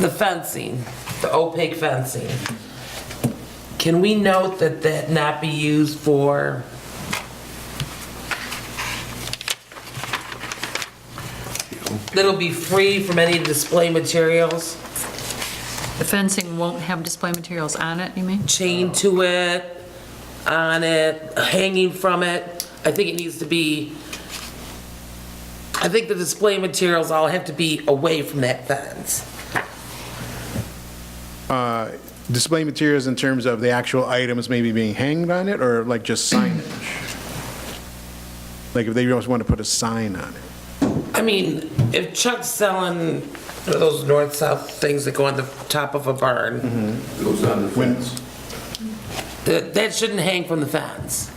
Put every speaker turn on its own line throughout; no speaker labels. The fencing, the opaque fencing. Can we note that that not be used for That'll be free from any display materials
The fencing won't have display materials on it, you mean?
chained to it, on it, hanging from it. I think it needs to be, I think the display materials all have to be away from that fence.
Display materials in terms of the actual items maybe being hanged on it, or like just signage? Like if they just want to put a sign on it?
I mean, if Chuck's selling those north-south things that go on the top of a barn,
Goes on the fence,
that, that shouldn't hang from the fence.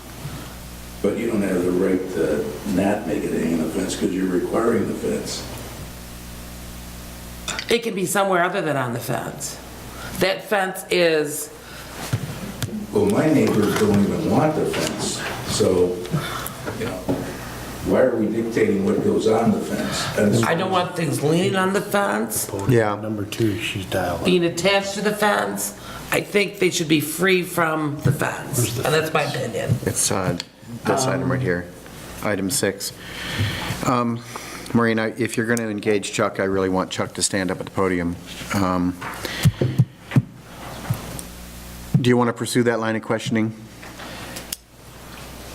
but you don't have the right to not make it hang on the fence because you're requiring the fence.
It can be somewhere other than on the fence. That fence is,
Well, my neighbors don't even want the fence, so, you know, why are we dictating what goes on the fence? And it's-
I don't want things leaning on the fence,
Yeah. Number two, she's dialing.
being attached to the fence. I think they should be free from the fence, and that's my opinion.
It's uh, this item right here, item six. Um, Maureen, I- if you're going to engage Chuck, I really want Chuck to stand up at the podium. Um, Do you want to pursue that line of questioning?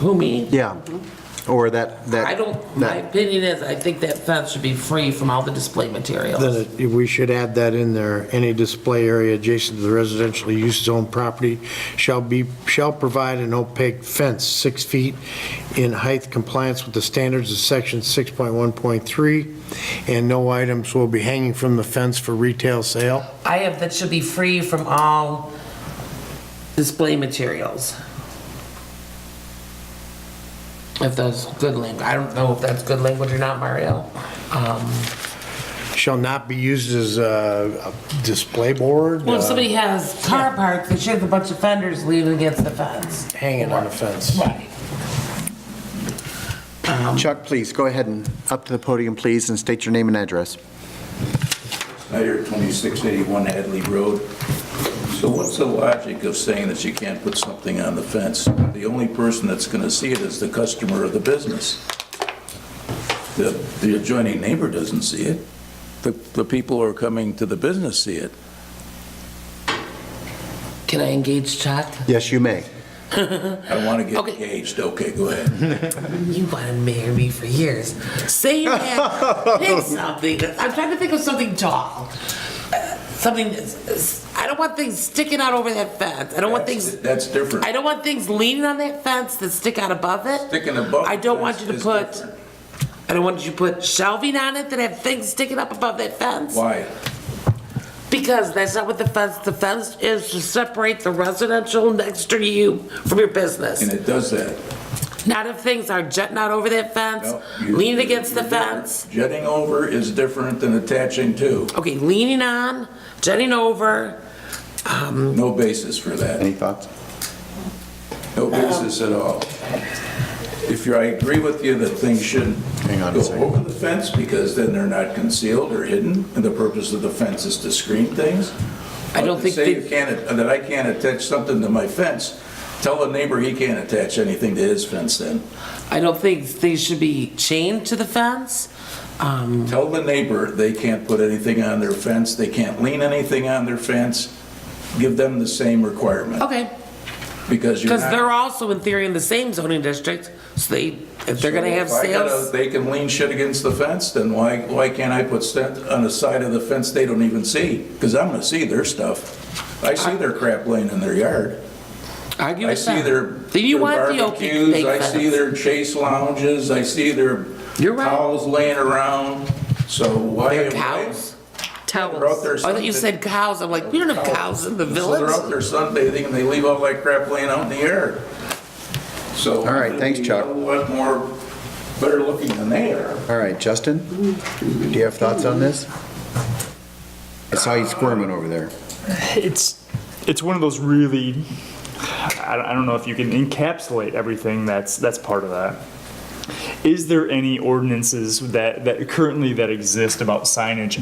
Who, me?
Yeah. Mm-hmm. Or that, that...
I don't, my
that-
opinion is, I think that fence should be free from all the display materials.
Then it- we should add that in there. Any display area adjacent to the residential use zone property shall be, shall provide an opaque fence six feet in height compliance with the standards of section 6.1.3, and no items will be hanging from the fence for retail sale.
I have that should be free from all display materials. If that's good language, I don't know if that's good language or not, Mario. Um,
Shall not be used as a a display board,
Well, if
uh,
somebody has car parts, they should have a bunch of fenders leaning against the fence.
hanging on the fence.
Right. Um,
Chuck, please, go ahead and up to the podium, please, and state your name and address.
Snyder, 2681 Hadley Road. So what's the logic of saying that you can't put something on the fence? The only person that's going to see it is the customer of the business. The the adjoining neighbor doesn't see it. The the people who are coming to the business see it.
Can I engage Chuck?
Yes, you may.
I want to get
Okay.
engaged. Okay, go ahead.
You want to marry me for years. Say that. Pick something. I'm trying to think of something tall. Uh, Something. that's- I don't want things sticking out over that fence. I don't want things.
That's different.
I don't want things leaning on that fence that stick out above it.
Sticking above
I don't
the
want you
fence
to
is
put.
different.
I don't want you to put shelving on it that have things sticking up above that fence.
Why?
Because that's not what the fence, the fence is to separate the residential next to you from your
And
business.
it does that.
Not if things are jutting out over that fence,
No, you-
leaning against the fence.
Jetting over is different than attaching to.
Okay, leaning on, jutting over.
No basis for that.
Any thoughts?
No
Um,
basis at all. If you're, I agree with you that things shouldn't
Hang on a
go
second.
over the fence because then they're not concealed or hidden, and the purpose of the fence is to screen things.
I don't
But to
think
say
they-
you can't, that I can't attach something to my fence, tell a neighbor he can't attach anything to his fence then.
I don't think things should be chained to the fence. Um,
Tell the neighbor they can't put anything on their fence, they can't lean anything on their fence. Give them the same requirement
okay,
because you're
Oh, because
not.
they're also in theory in the same zoning district, so they, if they're gonna
So
have
if I gotta-
sales.
They can lean shit against the fence, then why, why can't I put stuff on the side of the fence they don't even see? Because I'm gonna see their stuff. I see their crap laying in their yard.
Argue
I
with
see
them.
their
Then you
their
want the opaque
barbecues, I
fence.
see their chase lounges, I see their
You're right.
towels laying around, so why?
Their
why-
cows? Oh,
They're out there
I thought you
Sunday-
said cows. I'm like, we don't have cows in the
So they're
village.
out there sunbathing and they leave all that crap laying out in the yard. So.
All right, thanks, Chuck.
A lot more, better looking than they are.
All right, Justin, do you have thoughts on this? I saw you squirming over there.
it's it's one of those really I, I don't know if you can encapsulate everything that's that's part of that is there any ordinances that that currently that exist about signage